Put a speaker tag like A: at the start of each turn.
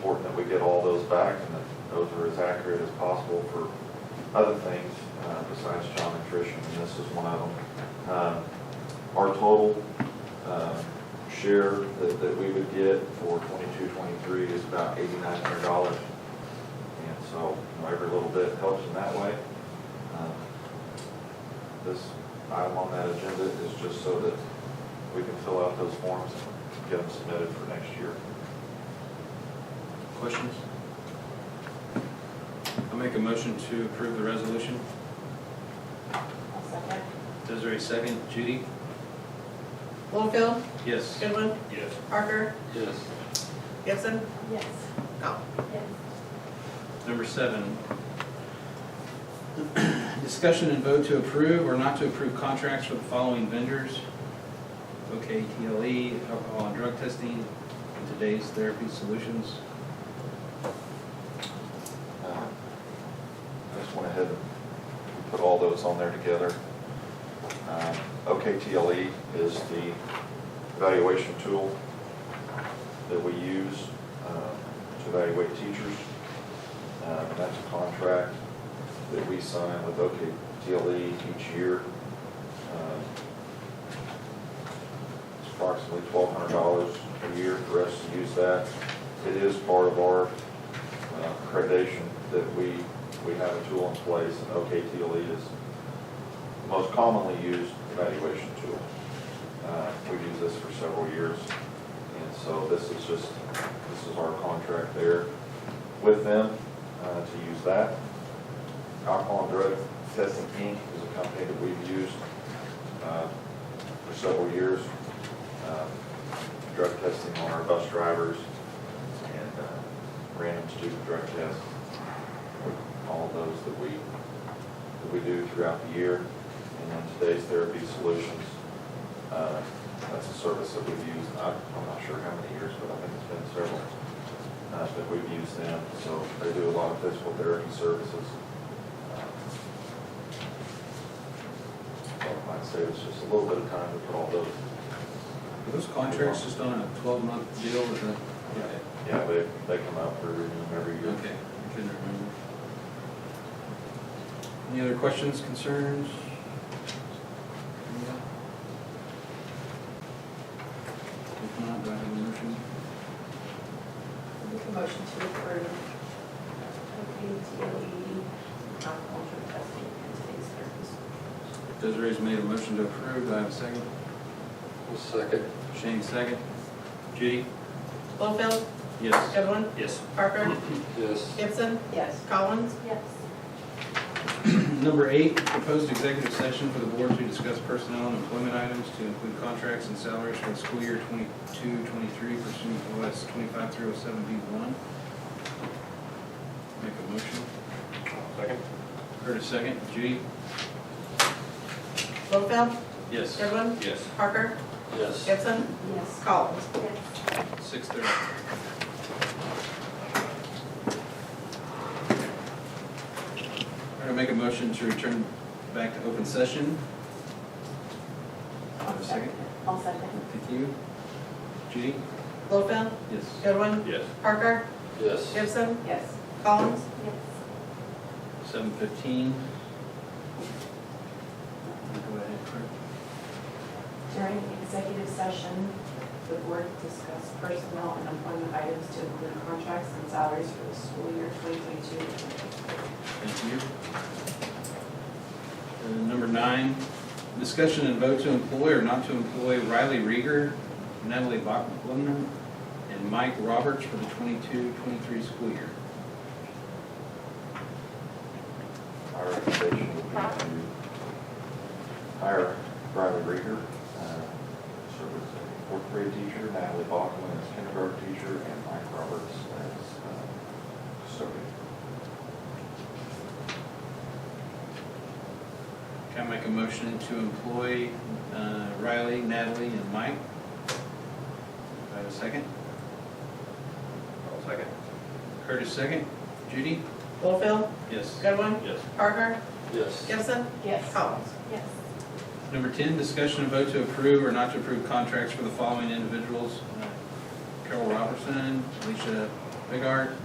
A: back and that those are as accurate as possible for other things uh, besides child nutrition, and this is one of them. Um, Our total uh, share that, that we would get for 22-23 is about eighty-nine hundred dollars. And so, you know, every little bit helps in that way. Um, This item on that agenda is just so that we can fill out those forms and get them submitted for next year.
B: Questions? I'll make a motion to approve the resolution.
C: I'll second.
B: Desiree, second. Judy?
D: Littlefield,
B: Yes.
D: Goodwin,
B: Yes.
D: Parker,
B: Yes.
D: Gibson,
C: Yes.
D: no.
C: Yes.
B: Number seven. Discussion and vote to approve or not to approve contracts for the following vendors. OKTLE, E, alcohol and drug testing, and today's therapy solutions.
A: Uh, I just went ahead and put all those on there together. Um, OKTLE E is the evaluation tool that we use uh, to evaluate teachers. Uh, That's a contract that we sign with OKTLE E each year. Um, It's approximately twelve hundred dollars a year for us to use that. It is part of our uh, accreditation that we, we have a tool in place, and OKTLE is the most commonly used evaluation tool. Uh, We've used this for several years, and so this is just, this is our contract there with them uh, to use that. Alcohol and Drug Testing Inc. is a company that we've used uh, for several years. Um, Drug testing on our bus drivers and uh, random student drug tests. All of those that we, that we do throughout the year. And then today's therapy solutions, uh, that's a service that we've used, I- I'm not sure how many years, but I think it's been several uh, that we've used them, so they do a lot of physical therapy services. Uh, So I might save us just a little bit of time to put all those,
B: Are those contracts just on a twelve-month deal or that?
A: yeah, they, they come out for review every year.
B: Okay, I couldn't remember. Any other questions, concerns? If not, do I have a motion?
C: Make a motion to approve E OPTLE alcohol drug testing and today's service.
B: Desiree's made a motion to approve, do I have a second?
E: Second.
B: Shane, second. Judy?
D: Littlefield,
B: Yes.
D: Goodwin,
B: Yes.
D: Parker,
E: Yes.
D: Gibson,
C: Yes.
D: Collins,
C: Yes.
B: Number eight, proposed executive session for the board to discuss personnel and employment items to include contracts and salaries for the school year twenty-two, twenty-three pursuant to OS twenty-five, three oh seven, B one. Make a motion.
A: Second?
B: Heard a second. Judy?
D: Littlefield,
B: Yes.
D: Goodwin,
B: Yes.
D: Parker,
E: Yes.
D: Gibson,
C: Yes.
D: Collins.
C: Yes.
B: Six thirty. I'm gonna make a motion to return back to open session. Have a second?
C: I'll second.
B: Thank you. Judy?
D: Littlefield,
B: Yes.
D: Goodwin,
B: Yes.
D: Parker,
E: Yes.
D: Gibson,
C: Yes.
D: Collins.
C: Yes.
B: Seven fifteen. Go ahead, Kurt.
C: During executive session, the board discussed personnel and employment items to include contracts and salaries for the school year 2022.
B: Thank you. Uh, Number nine, discussion and vote to employ or not to employ Riley Rieger, Natalie Bachman, and Mike Roberts for the 22-23 school year.
A: Our recommendation would be to hire Riley Rieger, uh, serve as a fourth grade teacher, Natalie Bachman as kindergarten teacher, and Mike Roberts as uh, custodian.
B: Can I make a motion to employ uh, Riley, Natalie, and Mike? Do I have a second? Second. Curtis, second. Judy?
D: Littlefield,
B: Yes.
D: Goodwin,
B: Yes.
D: Parker,
E: Yes.
D: Gibson,
C: Yes.
D: Collins.
C: Yes.
B: Number 10, discussion and vote to approve or not to approve contracts for the following individuals. uh, Carol Robertson, Alicia Bigart,